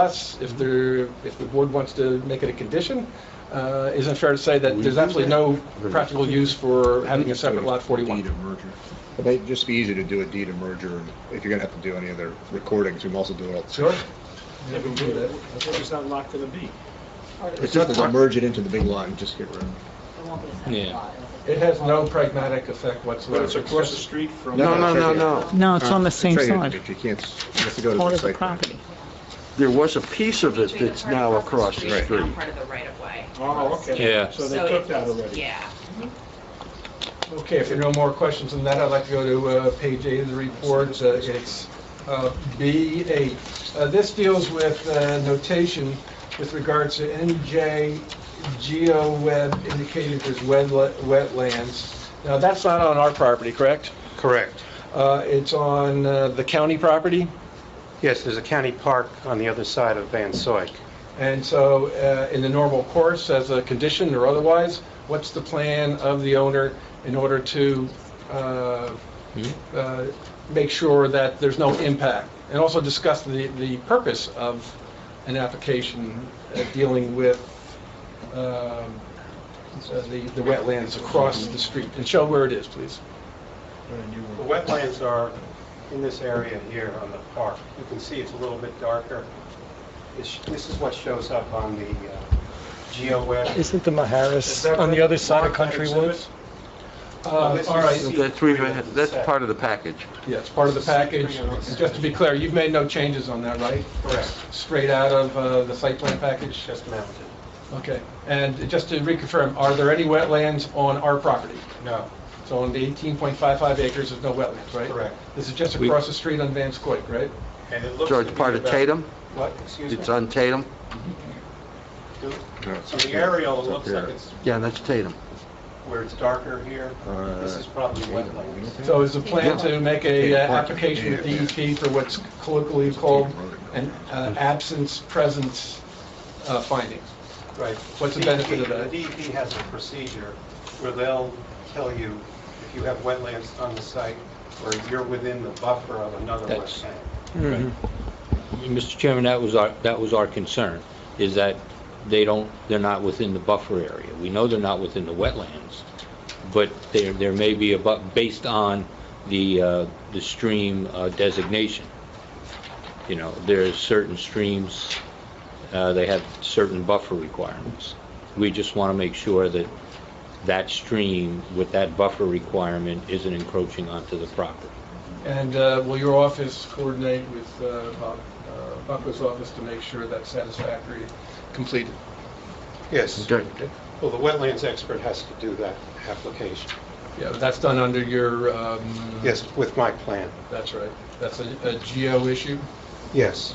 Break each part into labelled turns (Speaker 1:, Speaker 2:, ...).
Speaker 1: us, if there, if the board wants to make it a condition, uh, isn't fair to say that
Speaker 2: We
Speaker 1: there's
Speaker 2: do
Speaker 1: absolutely
Speaker 2: that.
Speaker 1: no practical use for having a separate lot
Speaker 2: Deed
Speaker 1: 41.
Speaker 2: of merger.
Speaker 3: It might just be easy to do a deed of merger, and if you're gonna have to do any other recordings, we can also do it.
Speaker 1: Sure.
Speaker 4: Yeah, but what- What is that lot gonna be?
Speaker 3: It's not to merge it into the big lot and just get rid of it.
Speaker 5: Yeah.
Speaker 1: It has no pragmatic effect
Speaker 4: But
Speaker 1: whatsoever.
Speaker 4: it's across the street from.
Speaker 3: No, no, no,
Speaker 2: no.
Speaker 6: No, it's on the
Speaker 3: It's
Speaker 6: same
Speaker 3: right here,
Speaker 6: side,
Speaker 3: If you can't, you have to go to
Speaker 6: part
Speaker 3: the
Speaker 6: of the
Speaker 3: site. plan.
Speaker 6: property.
Speaker 2: There was a piece of it that's now across the
Speaker 5: Not
Speaker 2: street.
Speaker 5: part of the right of way.
Speaker 4: Oh, okay.
Speaker 5: Yeah.
Speaker 4: So they
Speaker 5: So
Speaker 4: took
Speaker 5: it-
Speaker 4: that already.
Speaker 5: Yeah.
Speaker 1: Okay, if there are no more questions on that, I'd like to go to uh, page eight of the report. Uh, It's uh, B8. Uh, This deals with uh, notation with regards to NJ GeoWeb indicated as wedla- wetlands. Now, that's not on our property, correct?
Speaker 7: Correct.
Speaker 1: Uh, It's on uh, the county property,
Speaker 7: Yes, there's a county park on the other side of Van Soik.
Speaker 1: and so uh, in the normal course, as a condition or otherwise, what's the plan of the owner in order to uh, uh, make sure that there's no impact? And also discuss the, the purpose of an application uh, dealing with um, uh, the the wetlands across the street. And show where it is, please.
Speaker 7: The wetlands are in this area here on the park. You can see it's a little bit darker. This this is what shows up on the uh, GeoWeb.
Speaker 8: Isn't the
Speaker 4: Is
Speaker 8: Maharis
Speaker 4: that
Speaker 8: on the
Speaker 4: what
Speaker 8: other side of
Speaker 4: Mark had
Speaker 8: Country
Speaker 4: exhibit?
Speaker 8: Woods?
Speaker 1: Uh,
Speaker 7: this is-
Speaker 1: All right,
Speaker 2: That's, we've had- that's part of the package.
Speaker 1: yeah, it's part of the package. Just to be clear, you've made no changes on that, right?
Speaker 7: Correct,
Speaker 1: straight out of uh, the site plan package?
Speaker 7: just mounted.
Speaker 1: Okay, and just to reconfirm, are there any wetlands on our property?
Speaker 7: No,
Speaker 1: So on the 18.55 acres, there's no wetlands, right?
Speaker 7: Correct.
Speaker 1: This is just
Speaker 2: We-
Speaker 1: across the street on Van Scoik, right?
Speaker 4: And it looks.
Speaker 2: So
Speaker 4: to
Speaker 2: it's
Speaker 4: be
Speaker 2: part of
Speaker 4: about-
Speaker 2: Tatum?
Speaker 7: what, excuse me?
Speaker 2: It's on Tatum?
Speaker 3: No,
Speaker 7: So the aerial
Speaker 3: it's up
Speaker 7: looks like
Speaker 3: here.
Speaker 7: it's
Speaker 2: Yeah, that's Tatum.
Speaker 7: where it's darker here. This
Speaker 3: Uh,
Speaker 7: is probably wetlands.
Speaker 1: So is the plan to make a uh,
Speaker 3: Yeah.
Speaker 1: application with DEP for what's colloquially called an uh, absence, presence uh, finding?
Speaker 7: Right.
Speaker 1: What's the benefit of
Speaker 7: DEP
Speaker 1: that?
Speaker 7: The DEP has a procedure where they'll tell you if you have wetlands on the site or if you're within the buffer of another
Speaker 5: That's-
Speaker 7: wetland.
Speaker 5: Mr. Chairman, that was our, that was our concern, is that they don't, they're not within the buffer area. We know they're not within the wetlands, but there, there may be a, bu- based on the, uh, the stream uh, designation. You know, there's certain streams, uh, they have certain buffer requirements. We just want to make sure that that stream with that buffer requirement isn't encroaching onto the property.
Speaker 1: And uh, will your office coordinate with uh, Bob- uh, Bucko's office to make sure that's satisfactory, completed?
Speaker 7: Yes.
Speaker 2: Good.
Speaker 7: Well, the wetlands expert has to do that application.
Speaker 1: Yeah, but that's done under your, um...
Speaker 7: Yes, with my plan.
Speaker 1: That's right. That's a, a geo issue.
Speaker 7: Yes,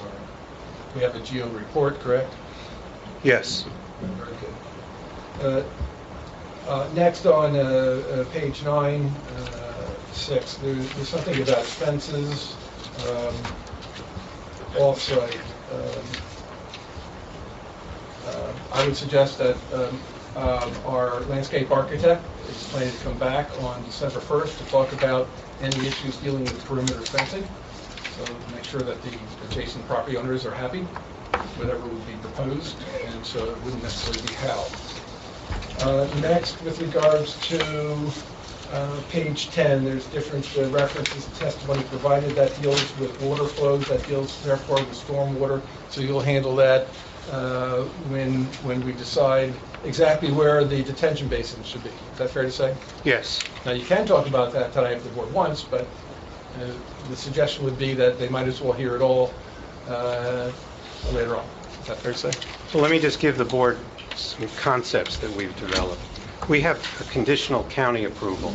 Speaker 1: We have a geo report, correct?
Speaker 7: yes.
Speaker 1: Very good. Uh, uh, Next on uh, uh, page nine, uh, six, there- there's something about fences um, off-site. Um, uh, I would suggest that um, um, our landscape architect is planning to come back on December 1st to talk about any issues dealing with perimeter fencing. So make sure that the adjacent property owners are happy whatever would be proposed, and so it wouldn't necessarily be how. Uh, Next, with regards to uh, page 10, there's different uh, references, and testimony provided that deals with water flows, that deals therefore with stormwater, so you'll handle that uh, when, when we decide exactly where the detention basin should be. Is that fair to say?
Speaker 7: Yes.
Speaker 1: Now, you can talk about that tonight if the board wants, but uh, the suggestion would be that they might as well hear it all uh, later on. Is that fair to say?
Speaker 7: So let me just give the board some concepts that we've developed. We have a conditional county approval.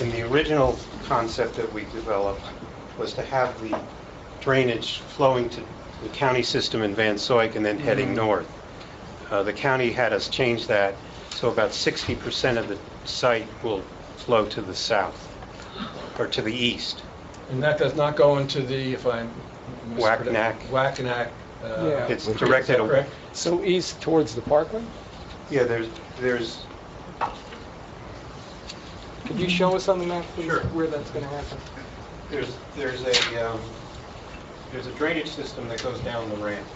Speaker 7: And the original concept that we developed was to have the drainage flowing to the county system in Van Soik and then
Speaker 1: Mm-hmm.
Speaker 7: heading north. Uh, The county had us change that, so about 60% of the site will flow to the south, or to the east.
Speaker 1: And that does not go into the, if I'm...
Speaker 7: Whack-nack.
Speaker 1: Whack-nack. uh,
Speaker 8: Yeah.
Speaker 7: It's
Speaker 1: is that
Speaker 7: directed, aw-
Speaker 1: Correct?
Speaker 8: So east towards the Parkway?
Speaker 7: yeah, there's, there's
Speaker 8: Could
Speaker 3: Mm-hmm.
Speaker 8: you show us on the map, please,
Speaker 7: Sure.
Speaker 8: where that's going to happen?
Speaker 7: There's, there's a, um, there's a drainage system that goes down the ramp.